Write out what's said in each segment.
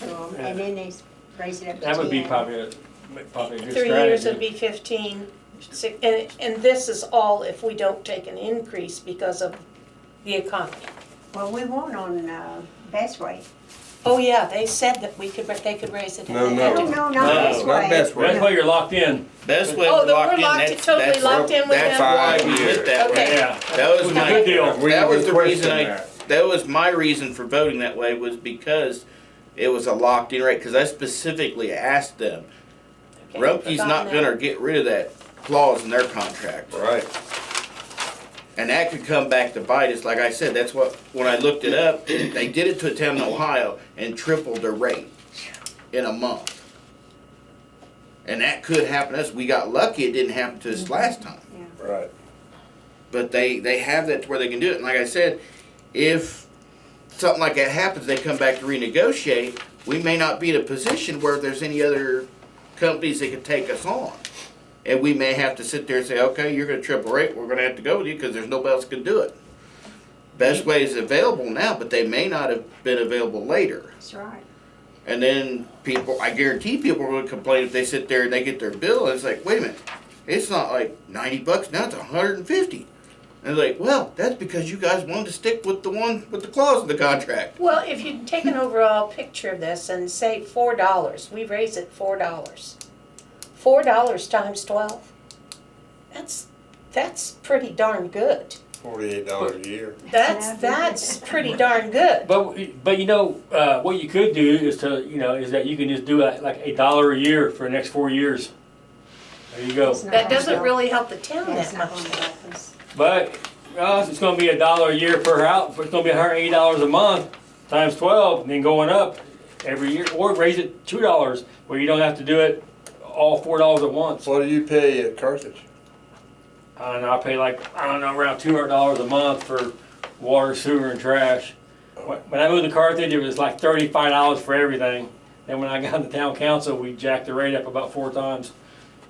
minimum, and then they s- raise it up to ten. That would be probably, a- probably a good Three years would strategy. be fifteen, six, and, and this is all if we don't take an increase because of the economy. Well, we won't on, uh, Best Way. Oh, yeah, they said that we could, ra- they could raise it. if No, they No, had to. no, not No, Best Way. not Best Way. That's why you're locked in, Best way Oh, to that lock we're in, locked- that's, totally that's, locked in with that's them. why we Five went that Okay. way. yeah. That was my, Good deal. that was the reason I that. That was my reason for voting that way was because it was a locked in rate. Because I specifically asked them, Okay, Rumpke's got not that. gonna get rid of that clause in their contract, Right. and that could come back to bite us. Like I said, that's what when I looked it up, they did it to a town in Ohio and tripled the rate in a month. And that could happen to us. We got lucky; it didn't happen to us last time. Right. but they they have that to where they can do it. And like I said, if something like that happens, they come back to renegotiate. We may not be in a position where there's any other companies that could take us on, and we may have to sit there and say, okay, you're going to triple rate. We're going to have to go with you because there's nobody else can do it. Best way is available now, but they may not have been available later. That's right. And then people, I guarantee people are gonna complain if they sit there and they get their bill and it's like, wait a minute, it's not like ninety bucks now, it's hundred and fifty. And they're like, well, that's because you guys wanted to stick with the one with the clause in the contract. Well, if you take an overall picture of this and say four dollars, we raise it four dollars. Four dollars times twelve, that's, that's pretty darn good. Forty-eight dollars a year. That's, Yeah. that's pretty darn good. but, but you know, uh, what you could do is to, you know, is that you can just do like, like a dollar a year for the next four years. There you go. It's not That gonna doesn't help. really help the town That's that not much. gonna help us. But, well, it's gonna be a dollar a year per house, it's gonna be hundred and eighty dollars a month, times twelve, and then going up every year, or raise it two dollars, where you don't have to do it all four dollars at once. What do you pay at Carthage? I don't know, I pay like, I don't know, around two hundred dollars a month for water, sewer, and trash. When when I moved to Carthage, it was like thirty-five dollars for everything. Then when I got into town council, we jacked the rate up about four times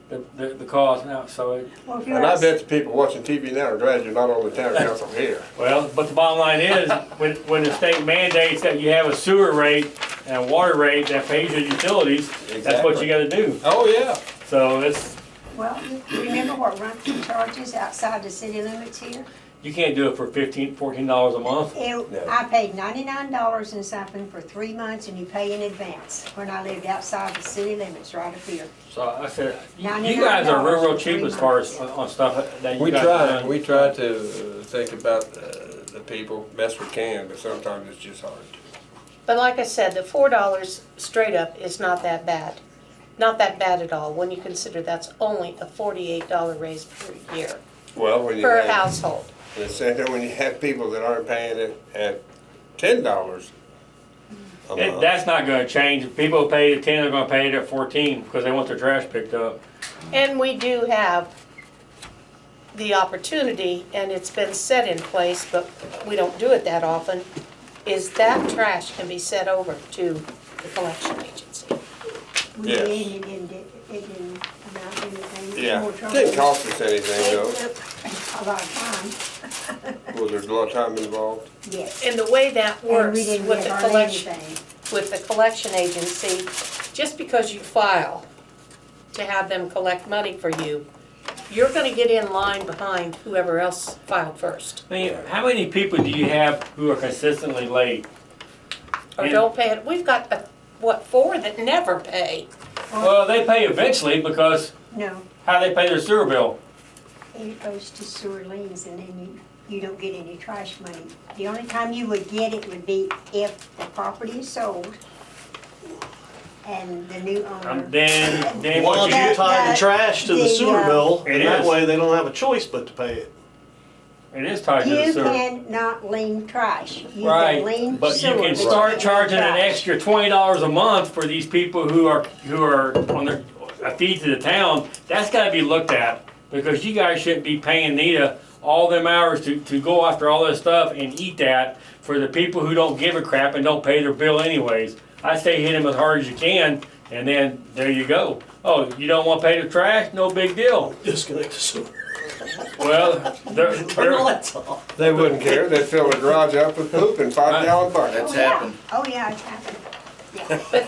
the, the, the cost now, so it, Well, if you're And I us- bet the people watching TV now are glad you're not on the town council here. Well, but the bottom line is, when, when the state mandates that you have a sewer rate and a water rate that pays your utilities, that's what you gotta do. Oh, yeah. So it's, Well, remember what Rumpkin charges outside the city limits here? you can't do it for fifteen, fourteen dollars a month. It, I paid ninety-nine dollars and something for three months and you pay in advance when I lived outside the city limits right up here. So I said, you you guys are real, real cheap as far as uh, on- on stuff that you We guys try, done. we try to uh, think about uh, the people best we can, but sometimes it's just hard. But like I said, the four dollars straight up is not that bad. Not that bad at all, when you consider that's only a forty-eight dollar raise per year, Well, when you per have, household. it's sad that when you have people that aren't paying it at ten dollars a That- month. That's not gonna change. If People pay the ten, they're gonna pay it at fourteen, because they want their trash picked up. And we do have the opportunity, and it's been set in place, but we don't do it that often, is that trash can be set over to the collection agency. We Yes. did, it didn't, it didn't amount to anything. Yeah, More it trouble. didn't cost us It anything though. took A lot of time. Well, there's a lot of time involved. Yes. And the way that And works we didn't with get the hardly collection, anything. with the collection agency, just because you file to have them collect money for you, you're gonna get in line behind whoever else filed first, I mean, how many people do you have who are consistently late? or And- don't pay it. We've got, uh, what, four that never pay? Well, they pay eventually because No, how they pay their sewer bill. it goes to sewer liens and then you, you don't get any trash money. The only time you would get it would be if the property is sold and the new owner. Um, then, then Why what don't you you That- tie that- the trash to the the, sewer uh, bill? It And that is. way they don't have a choice but to pay it. do, it is tied to the You sewer. cannot lean trash. You can lean Right, but you sewer, can but start can't charging an trash. extra twenty dollars a month for these people who are, who are on their, a fee to the town. That's gotta be looked at, because you guys shouldn't be paying Nita all them hours to, to go after all this stuff and eat that for the people who don't give a crap and don't pay their bill anyways. I say hit them as hard as you can, and then there you go. Oh, you don't wanna pay the trash? No big deal. Disconnect the sewer. Well, they're, Turn the they're, lights off. They wouldn't care. They'd fill the garage up with poop in five gallon buckets. That's Oh, yeah. happened. Oh, yeah, it's happened. Yeah.